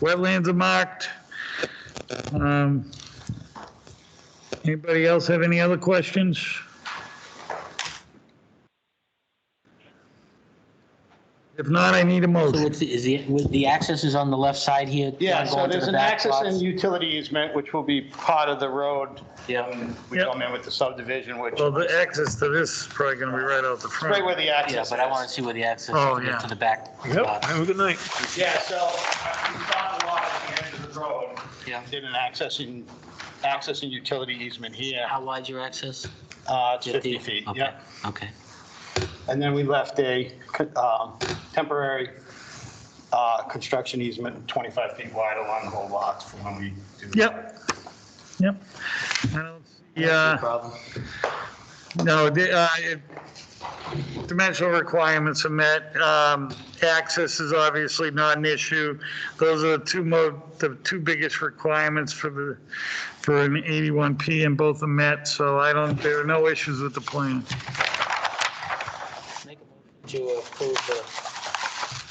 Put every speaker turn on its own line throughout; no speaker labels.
Wetlands are marked. Um, Anybody else have any other questions? If not, I need a
So
motion.
it's, the- is the, with the access is on the left side here?
Yeah,
not
so
going to
there's
the
an
back
access
lots?
and utility easement, which will be part of the road.
Yeah,
We
Yep.
come in with the subdivision, which,
Well, the access to this is probably going to be right out the front.
right where the
yeah,
access
but I want to
is.
see where the access
Oh,
is
yeah.
to the back
Yep,
lots.
have a good night.
Yeah, so uh, we found a lot at the end of the road.
Yeah.
Did an access and, access and utility easement here.
How wide's your access?
Uh, It's 50 feet,
Okay,
yeah.
Okay,
And then we left a um, temporary uh, construction easement 25 feet wide along the whole lot for when we do.
Yep, yep. I don't see, uh,
Problem.
No, the, uh, it- dimensional requirements are met. Um, Access is obviously not an issue. Those are the two mo, the two biggest requirements for the, for an 81P, and both are met, so I don't, there are no issues with the plan.
Make a motion to approve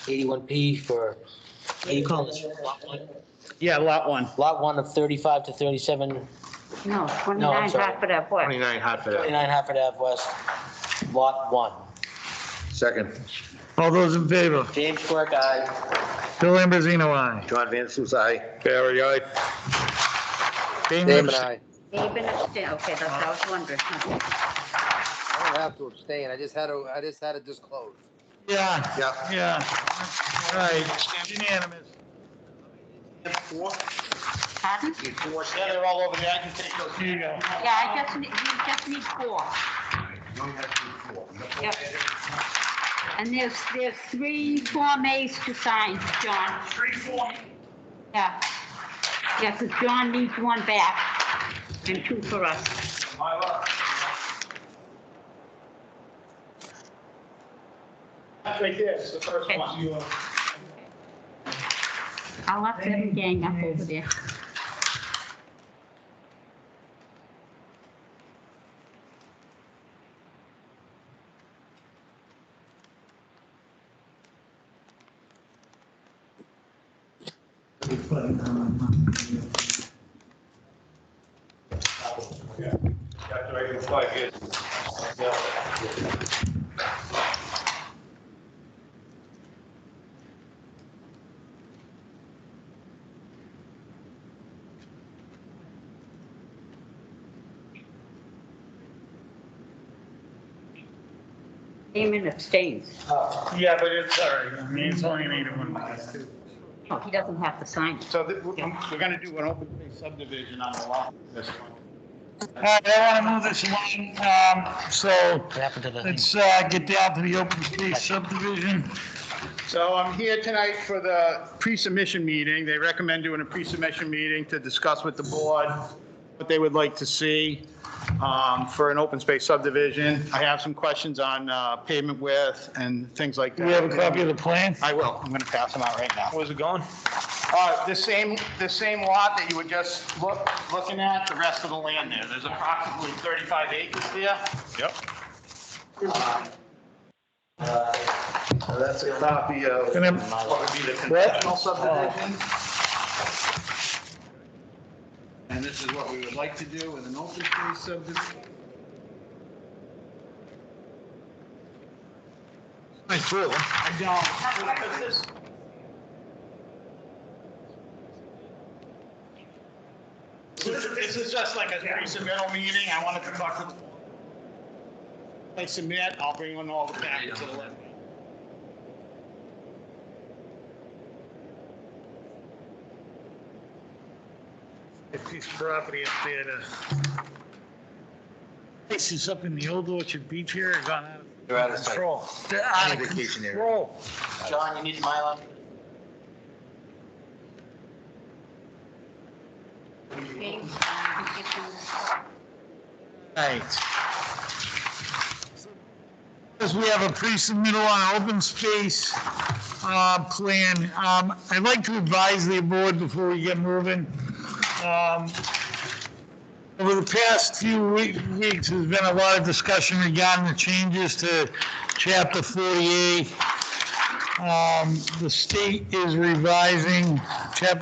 the 81P for, what do you call this? Lot one?
Yeah, lot one.
Lot one of 35 to 37,
No,
No, I'm
29
sorry.
Hartford Ave West.
29 Hartford Ave.
29 Hartford Ave West, Lot one.
Second,
All those in favor?
James Quirk, uh, aye.
Bill Ambrosino, aye.
John Van Suss, aye. Barry, aye.
Damon
Damon,
abst-
I,
Even abstain, okay, that's what I was wondering. huh?
I don't have to abstain, I just had to, I just had to disclose.
Yeah,
Yeah.
yeah. All right, unanimous.
Pardon?
Yeah, they're all over there. I can take those. Here you go.
Yeah, I just, need- you just need four. Yep. And there's, there's three Form As to sign, John. Three Form? Yeah. Yeah, because John needs one back and two for us.
That's right there, it's the first one.
I'll let them gang up over there. Damon abstains.
Yeah, but it's, sorry, I mean, it's only an 81.
Oh, he doesn't have to sign it.
So th- we're we're gonna do an open space subdivision on the lot, this one.
All right, I want to move this along, um, so
What happened to the thing?
Let's uh, get down to the open space subdivision.
So I'm here tonight for the pre-submission meeting. They recommend doing a pre-submission meeting to discuss with the board what they would like to see um, for an open space subdivision. I have some questions on uh, pavement width and things like that.
Do we have a copy of the plan?
I will. I'm gonna pass them out right now.
Where's it going?
Uh, The same, the same lot that you were just look- looking at, the rest of the land there, there's approximately 35 acres there.
Yep.
That's a copy of
Can I-
what would be the conventional subdivision. And this is what we would like to do with an open space subdivision.
Nice pool.
I don't. This is just like a pre-submittal meeting, I wanted to talk to. They submit, I'll bring on all the packets to the left.
A piece of property up there to... This is up in the old Orchard Beach here, it's gone out of
You're out of sight.
control. They're out of
Vacation area.
control.
John, you need my Mylar?
James, um, you get them.
Right. As we have a pre-submittal on open space uh, plan, um, I'd like to advise the board before we get moving. um, Over the past few we- weeks, there's been a lot of discussion regarding the changes to Chapter 48. Um, The state is revising Chapter